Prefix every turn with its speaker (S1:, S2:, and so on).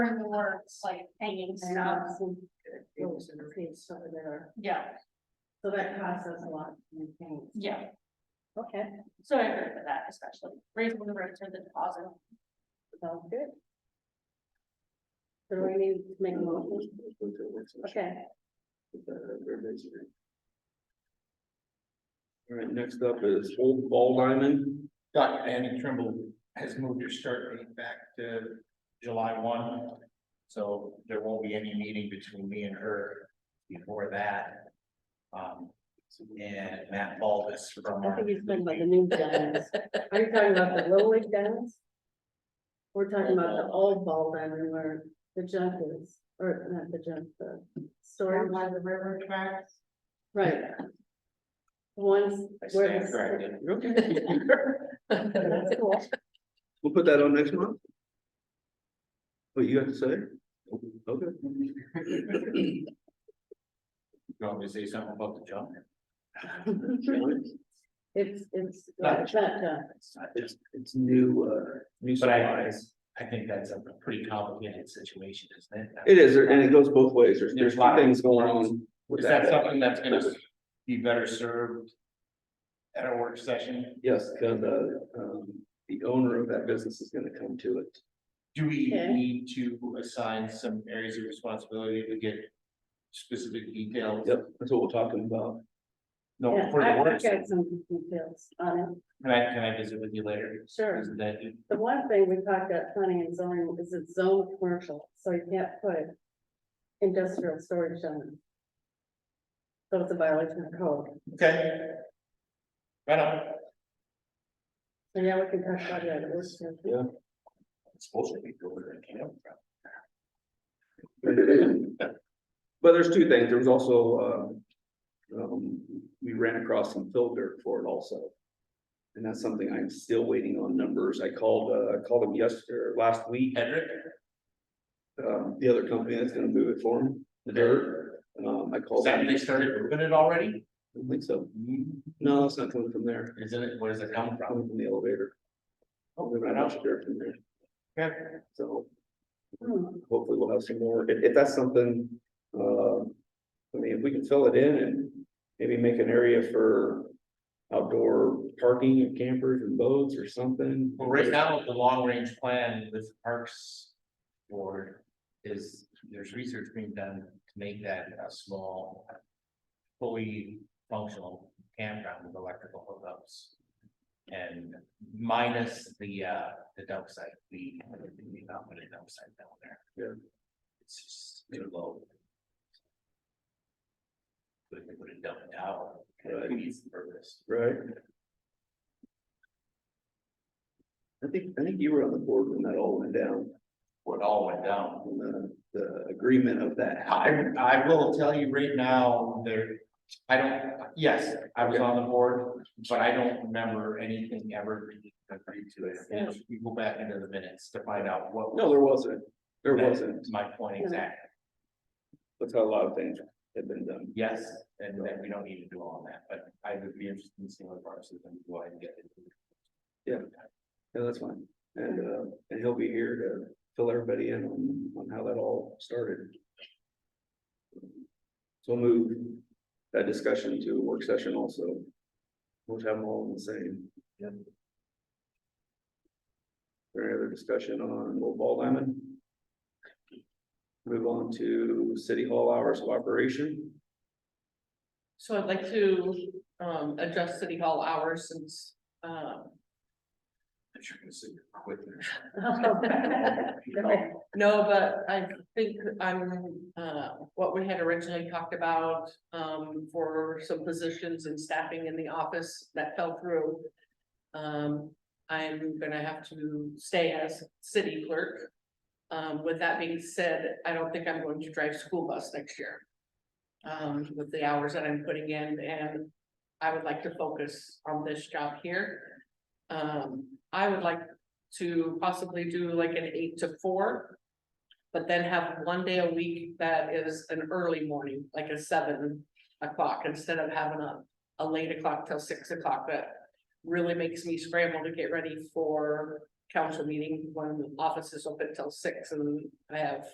S1: in the works, like hanging
S2: And, uh,
S1: stuff,
S2: some-
S3: It
S2: those
S3: was in
S2: are paid stuff there.
S1: yeah,
S2: So that costs us a lot. to maintain.
S1: yeah,
S2: Okay,
S1: so I agree with that especially, raising the rate for the deposit.
S2: sounds good. So do we need to make a motion? Okay,
S3: All right, next up is Old Ball Diamond.
S4: Dr. Andy Trimble has moved her start date back to July one. So there won't be any meeting between me and her before that. Um, and Matt Baldus from.
S2: I
S4: our-
S2: think he's talking about the new diamonds. Are you talking about the low wage diamonds? We're talking about the old ball diamond where the junk is, or not the junk, the storage.
S5: by the river tracks.
S2: Right. Ones.
S4: I
S2: where
S4: stand
S2: the-
S4: corrected.
S2: That's cool.
S3: We'll put that on next month. What you got to say? Okay.
S4: You want me to say something about the jump?
S2: It's, it's,
S4: Not
S2: it's not junk.
S3: It's, it's new, uh, new
S4: But I,
S3: supplies.
S4: I think that's a pretty complicated situation, isn't it?
S3: It is, and it goes both ways. There's,
S4: There's
S3: there's
S4: lots.
S3: things going on with
S4: Is that
S3: that.
S4: something that's gonna be better served at a work session?
S3: Yes, because, uh, um, the owner of that business is gonna come to it.
S4: Do we
S2: Okay.
S4: need to assign some areas of responsibility to get specific details?
S3: Yep, that's what we're talking about.
S4: No,
S2: Yeah,
S4: for the
S2: I-
S4: work
S2: I've
S4: session,
S2: got some details on it,
S4: can I, can I visit with you later?
S2: sure.
S4: Isn't that it?
S2: The one thing we talked about planning and zoning is it's zone commercial, so you can't put industrial storage on it. So it's a violation of code.
S4: Okay. Right on.
S2: So yeah, we can talk about that. at work session.
S3: Yeah.
S4: It's supposed to be good, I can't.
S3: But there's two things. There was also, uh, um, we ran across some fill dirt for it also. And that's something I'm still waiting on numbers. I called, uh, I called him yesterday, last week,
S4: Hedrick?
S3: um, the other company that's gonna move it for him, the dirt. Um, I
S4: Is
S3: called.
S4: that,
S3: them.
S4: they started moving it already?
S3: I don't think so. No, it's not coming from there.
S4: Isn't it, where does it come from?
S3: Coming from the elevator.
S4: Oh,
S3: Moving a
S4: right
S3: bunch
S4: on.
S3: of dirt from there.
S4: Okay.
S3: So
S2: Hmm,
S3: hopefully we'll have some more. If, if that's something, uh, I mean, if we can fill it in and maybe make an area for outdoor parking of campers and boats or something.
S4: Well, right now, the long range plan with the Parks Board is, there's research being done to make that a small. Fully functional campground with electrical hookups. And minus the uh, the dump site, we, we not put a dump site down there.
S3: Yeah.
S4: It's just too low. But if we put a dump tower, it
S3: Right.
S4: defeats the purpose.
S3: Right? I think, I think you were on the board when that all went down,
S4: What all went down.
S3: when the, the agreement of that.
S4: I, I will tell you right now, there, I don't, yes, I was on the board, but I don't remember anything ever being agreed to it. And if you go back into the minutes to find out what.
S3: No, there wasn't. There
S4: That-
S3: wasn't.
S4: My point exactly,
S3: That's how a lot of things have been done.
S4: yes, and then we don't need to do all that, but I would be interested in seeing what parts of them go ahead and get it.
S3: Yeah, that's fine. And, uh, and he'll be here to fill everybody in on, on how that all started. So we'll move that discussion to a work session also. We'll have them all in the same. Yep. Any other discussion on Old Ball Diamond? Move on to City Hall hours of operation.
S5: So I'd like to um adjust city hall hours since um,
S4: I'm sure it's quicker.
S2: Hmm.
S5: no, but I think I'm uh what we had originally talked about. Um for some positions and staffing in the office that fell through. Um I'm gonna have to stay as city clerk. Um with that being said, I don't think I'm going to drive school bus next year. Um with the hours that I'm putting in and I would like to focus on this job here. Um, I would like to possibly do like an eight to four. But then have one day a week that is an early morning, like a seven o'clock, instead of having a, a late o'clock till six o'clock, that. Really makes me scramble to get ready for council meeting, one of the offices open till six and I have